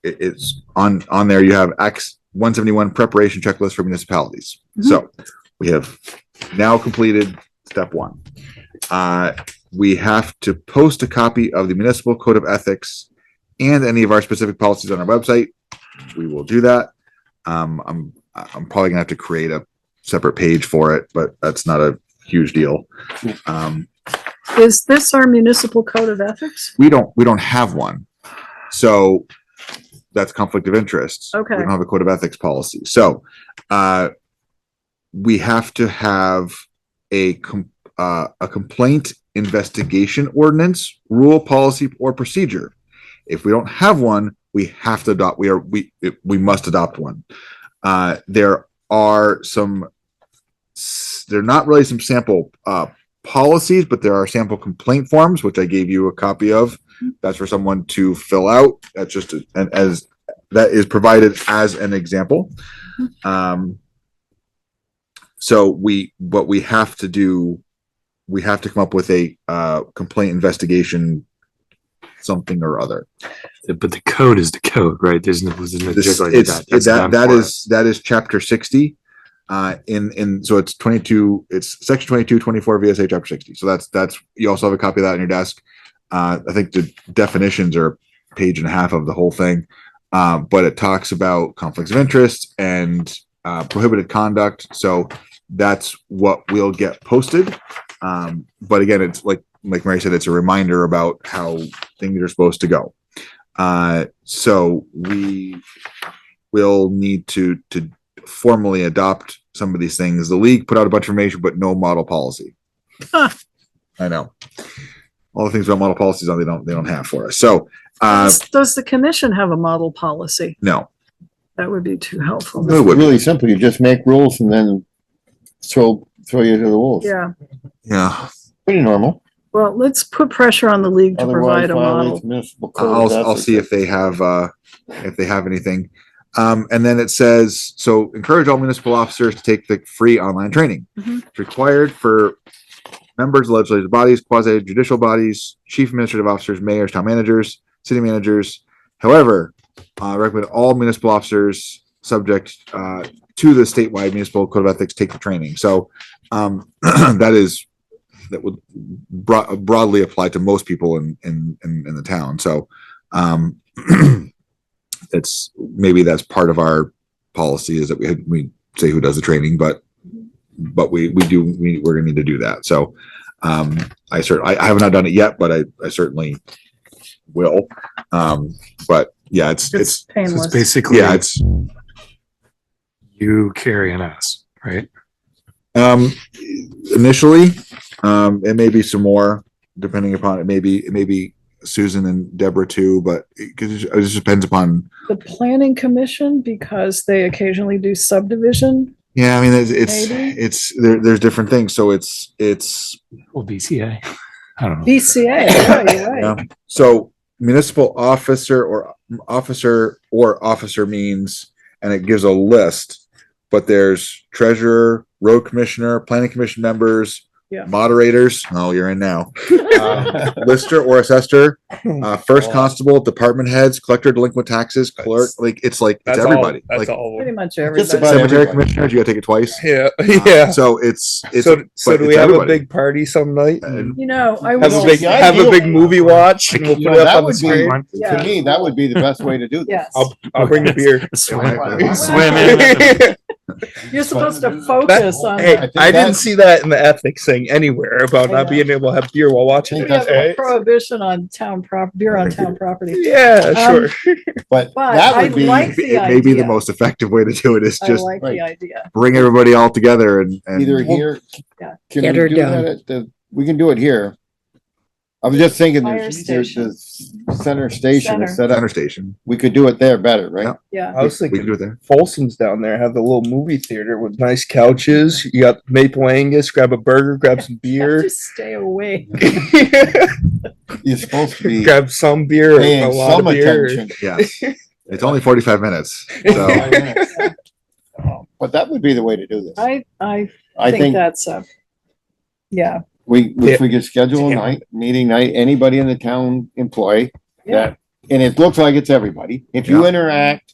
it, it's on, on there, you have Acts one seventy-one preparation checklist for municipalities. So we have now completed step one. Uh, we have to post a copy of the municipal code of ethics and any of our specific policies on our website. We will do that. Um, I'm, I'm probably gonna have to create a separate page for it, but that's not a huge deal. Um, Is this our municipal code of ethics? we don't, we don't have one. So that's conflict of interest. Okay. We don't have a code of ethics policy. So, uh, we have to have a, com- uh, a complaint investigation ordinance, rule, policy, or procedure. If we don't have one, we have to adopt, we are, we, we must adopt one. Uh, there are some, s- they're not really some sample, uh, policies, but there are sample complaint forms, which I gave you a copy of. That's for someone to fill out. That's just a- an as that is provided as an example. Um, so we what we have to do, we have to come up with a uh, complaint investigation, something or other. But the code is the code, right? There's no, there's no This, jiggling of it's, that. That's that, done that for is, that is chapter sixty. Uh, in, in, so it's twenty-two, it's section 22, 24 VSA chapter sixty. So that's, that's, you also have a copy of that on your desk. Uh, I think the definitions are a page and a half of the whole thing. Uh, but it talks about conflicts of interest and, uh, prohibited conduct. So that's what we'll get posted. Um, but again, it's like, like Mary said, it's a reminder about how things are supposed to go. Uh, so we will need to to formally adopt some of these things. The league put out a bunch of information, but no model policy. Huh. I know. All the things about model policies on they don't they don't have for us. So uh Does- Does the commission have a model policy? no. That would be too helpful. No, it wouldn't. Really simple, you just make rules and then throw, throw you to the wolves. Yeah, Yeah. Pretty normal. well, let's put pressure on the league to Otherwise provide a violates model. municipal code. I'll of I'll see if ethics. they have uh if they have anything. Um, and then it says, so encourage all municipal officers to take the free online training. Mhm. It's required for members, of legislative bodies, quasi judicial bodies, chief administrative officers, mayors, town managers, city managers. However, uh, recommend all municipal officers subject uh, to the statewide municipal code of ethics take the training. So um, that is that would bro- broadly apply to most people in in in, in the town. So um, it's maybe that's part of our policy is that we we say who does the training, but but we we do we we're gonna need to do that. So um, I cert I, I have not done it yet, but I I certainly will. Um, but yeah, it's It's it's it. So it's painless. basically, yeah it's you carrying us, right? Um, initially, um, it may be some more depending upon it. Maybe it may be Susan and Deborah too, but because it, just depends upon. The planning commission, because they occasionally do subdivision. Yeah, I mean, it's it's, Maybe. it's there, there's different things. So it's it's Well, BCA. I don't know. BCA, yeah, you're right. Yeah. so municipal officer or officer or officer means, and it gives a list. But there's treasurer, road commissioner, planning commission members, Yeah. moderators. Oh, you're in now. Uh, lister or assessor, uh, first Wow. constable, department heads, collector, delinquent taxes, clerk, like, it's like, it's all- everybody. That's Like all. Pretty much Just everybody. about cemetery everybody. commissioners, you gotta take it twice. Yeah, Uh, yeah. So it's, it's, so, so but do it's we have a everybody. Uh, big party some night? And You know, I have a Well, big, was, the have a ideal- big movie watch, and we'll put You know, it that up on the would screen. be- Yeah. To me, that would be the best way to do this. yes, I'll, I'll bring the beer. Swim. Swim in. you're supposed to focus on. hey, I think I, didn't that's- uh, see that in the ethics thing anywhere about I not know. being able to have beer while watching We it. have a right? prohibition on town prop, beer on town uh, property. Yeah, Um, sure. But But that I would be, like the It may be the idea. most effective way to do it is I just like the right. idea. bring everybody all together and, either and here. Yeah. Can Get we her do done. that at the, we can do it here. I was just thinking, Fire there's, there's station. the center station Center. is set center up. station. We could do it there better, right? Yeah. I was We can do thinking it there. Folsom's down there have the little movie theater with nice couches. You got maple Angus. Grab a burger. Grab some beer. Just stay away. You're supposed to be grab some beer. or A paying lot some of beer. attention. Yeah. It's only forty-five minutes. So But that would be the way to do this. I, I I think think that's a, yeah, we, Yeah. if we could schedule a Yeah. night, meeting night, anybody in the town employee yeah, that and it looks like it's everybody. If you interact